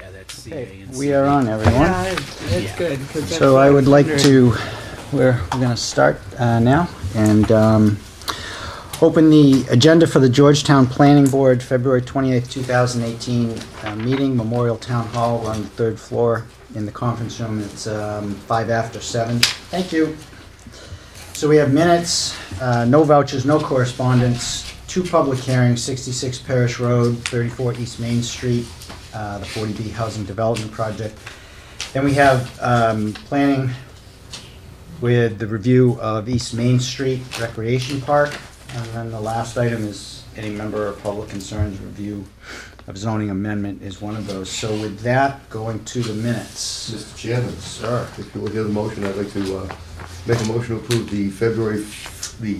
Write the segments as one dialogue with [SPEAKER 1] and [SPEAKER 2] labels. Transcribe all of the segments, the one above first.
[SPEAKER 1] at
[SPEAKER 2] Okay,
[SPEAKER 1] CA and
[SPEAKER 2] We are on,
[SPEAKER 3] Yeah,
[SPEAKER 2] everyone.
[SPEAKER 3] it's it's good. 'cause that's
[SPEAKER 2] So
[SPEAKER 3] what
[SPEAKER 2] I would
[SPEAKER 3] was
[SPEAKER 2] like
[SPEAKER 3] wondering.
[SPEAKER 2] to, we're, we're gonna start uh, now and um, open the agenda for the Georgetown Planning Board, February 28th, 2018 uh, meeting, Memorial Town Hall on the third floor in the conference room. It's um, five after seven. Thank you. So we have minutes, uh, no vouchers, no correspondence, two public hearings, 66 Parish Road, 34 East Main Street, uh, the 40B Housing Development Project. Then we have um, planning with the review of East Main Street Recreation Park. And then the last item is any member of public concerns review of zoning amendment is one of those. So with that, going to the minutes.
[SPEAKER 4] Mr. Chairman,
[SPEAKER 2] Sir.
[SPEAKER 4] if you'll hear the motion, I'd like to uh, make a motion to approve the February, f- the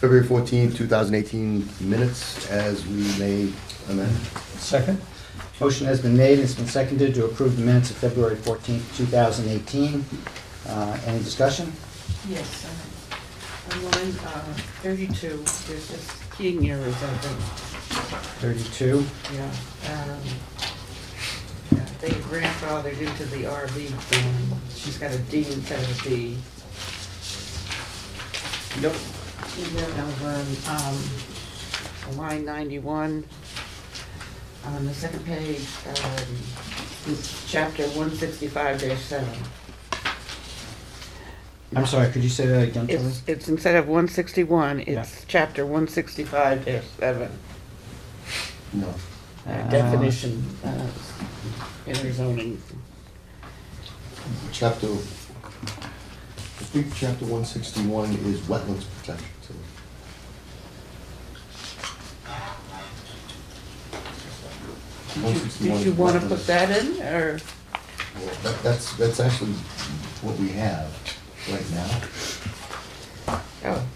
[SPEAKER 4] February 14, 2018 minutes as we may amend.
[SPEAKER 5] Second?
[SPEAKER 2] Motion has been made and it's been seconded to approve the minutes of February 14th, 2018. Uh, Any discussion?
[SPEAKER 3] Yes, uh, on line uh, 32, there's just keying errors, I think,
[SPEAKER 2] 32.
[SPEAKER 3] yeah. Um, yeah, They grandfathered into the RV, thing. she's got a D instead of a B.
[SPEAKER 2] Nope.
[SPEAKER 3] And then over on um, line 91, on the second page, um, it's chapter 165-7.
[SPEAKER 2] I'm sorry, could you say that again, Tilly?
[SPEAKER 3] It's, it's instead of 161,
[SPEAKER 2] Yeah.
[SPEAKER 3] it's chapter 165-7.
[SPEAKER 4] No.
[SPEAKER 2] Uh,
[SPEAKER 3] definition uh, in our zoning.
[SPEAKER 4] Chapter, I think chapter 161 is wetlands protection. so
[SPEAKER 3] Did
[SPEAKER 4] 161
[SPEAKER 3] you
[SPEAKER 4] is
[SPEAKER 3] want to
[SPEAKER 4] wetlands.
[SPEAKER 3] put that in, or?
[SPEAKER 4] Well, that- That's, that's actually what we have right now.
[SPEAKER 3] Oh,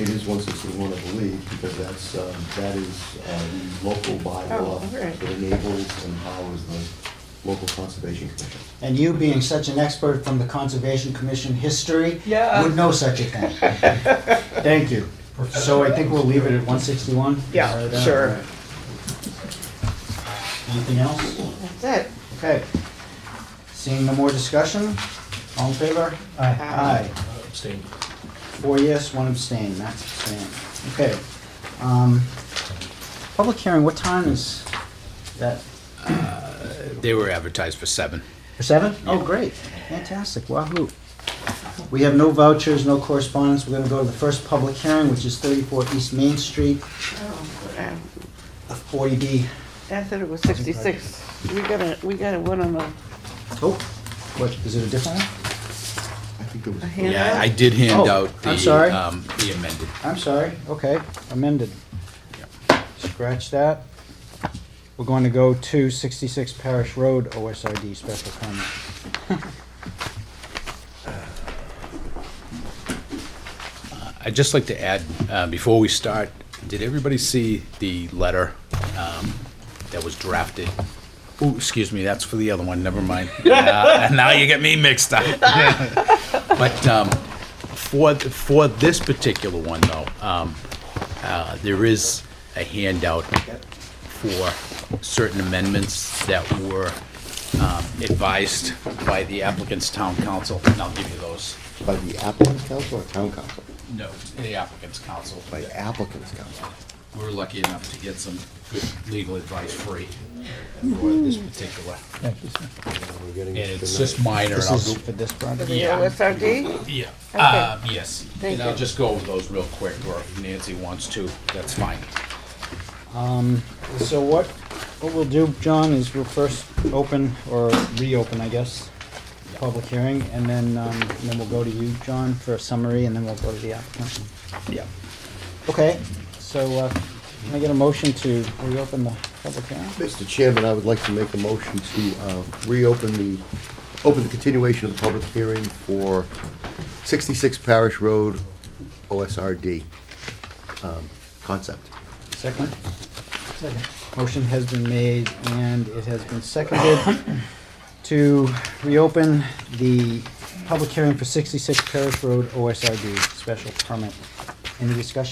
[SPEAKER 4] It is one sixty-one, I believe, because that's, um, that is, uh, the local
[SPEAKER 3] Oh,
[SPEAKER 4] bylaw
[SPEAKER 3] all right.
[SPEAKER 4] that enables and powers the local conservation commission.
[SPEAKER 2] And you being such an expert from the Conservation Commission history.
[SPEAKER 3] Yeah.
[SPEAKER 2] Would know such a thing. Thank you. So I think we'll leave it at one sixty-one?
[SPEAKER 3] Yeah, sure.
[SPEAKER 2] Anything else?
[SPEAKER 3] that's it.
[SPEAKER 2] Okay. Seeing no more discussion, all in favor?
[SPEAKER 3] Uh,
[SPEAKER 2] Aye.
[SPEAKER 5] Abstain.
[SPEAKER 2] Four yes, one abstain, Max abstain. Okay. Um, Public hearing, what time is that?
[SPEAKER 1] They were advertised for seven.
[SPEAKER 2] For Seven? Oh, great. Fantastic. Wahoo. We have no vouchers, no correspondence. We're gonna go to the first public hearing, which is thirty-four East Main Street,
[SPEAKER 3] Oh, uh,
[SPEAKER 2] a forty B.
[SPEAKER 3] I thought it was 66. We got a, we got a one on the
[SPEAKER 2] Oh, what, is it a different one?
[SPEAKER 4] I think there was.
[SPEAKER 3] a
[SPEAKER 1] Yeah, I
[SPEAKER 3] handout.
[SPEAKER 1] did hand
[SPEAKER 2] Oh,
[SPEAKER 1] out
[SPEAKER 2] I'm
[SPEAKER 1] the,
[SPEAKER 2] sorry.
[SPEAKER 1] um, the amended.
[SPEAKER 2] I'm sorry, okay, amended. Scratch that. We're going to go to sixty-six Parish Road, OSRD special permit.
[SPEAKER 1] I'd just like to add, uh, before we start, did everybody see the letter um, that was drafted? Ooh, excuse me, that's for the other one, never mind. Uh, Now you get me mixed up. But um, for, for this particular one, though, um, uh, there is a handout for certain amendments that were um, advised by the applicant's town council, and I'll give you those.
[SPEAKER 4] By the applicant's council or town council?
[SPEAKER 1] No, the applicant's council.
[SPEAKER 4] By the applicant's council.
[SPEAKER 1] we were lucky enough to get some good legal advice free for
[SPEAKER 3] Mm-hmm.
[SPEAKER 1] this particular.
[SPEAKER 5] Thank you, sir.
[SPEAKER 4] We're
[SPEAKER 1] And
[SPEAKER 4] getting it
[SPEAKER 1] it's
[SPEAKER 4] tonight.
[SPEAKER 1] just minor. and
[SPEAKER 2] This
[SPEAKER 1] I'll
[SPEAKER 2] is
[SPEAKER 1] go-
[SPEAKER 2] for this project?
[SPEAKER 3] The
[SPEAKER 1] yeah.
[SPEAKER 3] OSRD?
[SPEAKER 1] Yeah,
[SPEAKER 3] Okay.
[SPEAKER 1] uh, yes.
[SPEAKER 3] Thank
[SPEAKER 1] And I'll
[SPEAKER 3] you.
[SPEAKER 1] just go over those real quick, or if Nancy wants to, that's fine.
[SPEAKER 2] Um, so what, what we'll do, John, is we'll first open, or reopen, I guess, the public hearing, and then, um, and then we'll go to you, John, for a summary, and then we'll go to the applicant.
[SPEAKER 1] Yeah.
[SPEAKER 2] Okay, so, uh, can I get a motion to reopen the public hearing?
[SPEAKER 4] Mr. Chairman, I would like to make a motion to uh, reopen the, open the continuation of the public hearing for 66 Parish Road OSRD um, concept.
[SPEAKER 2] Second? Motion has been made and it has been seconded to reopen the public hearing for 66 Parish Road OSRD special permit. Any discussion?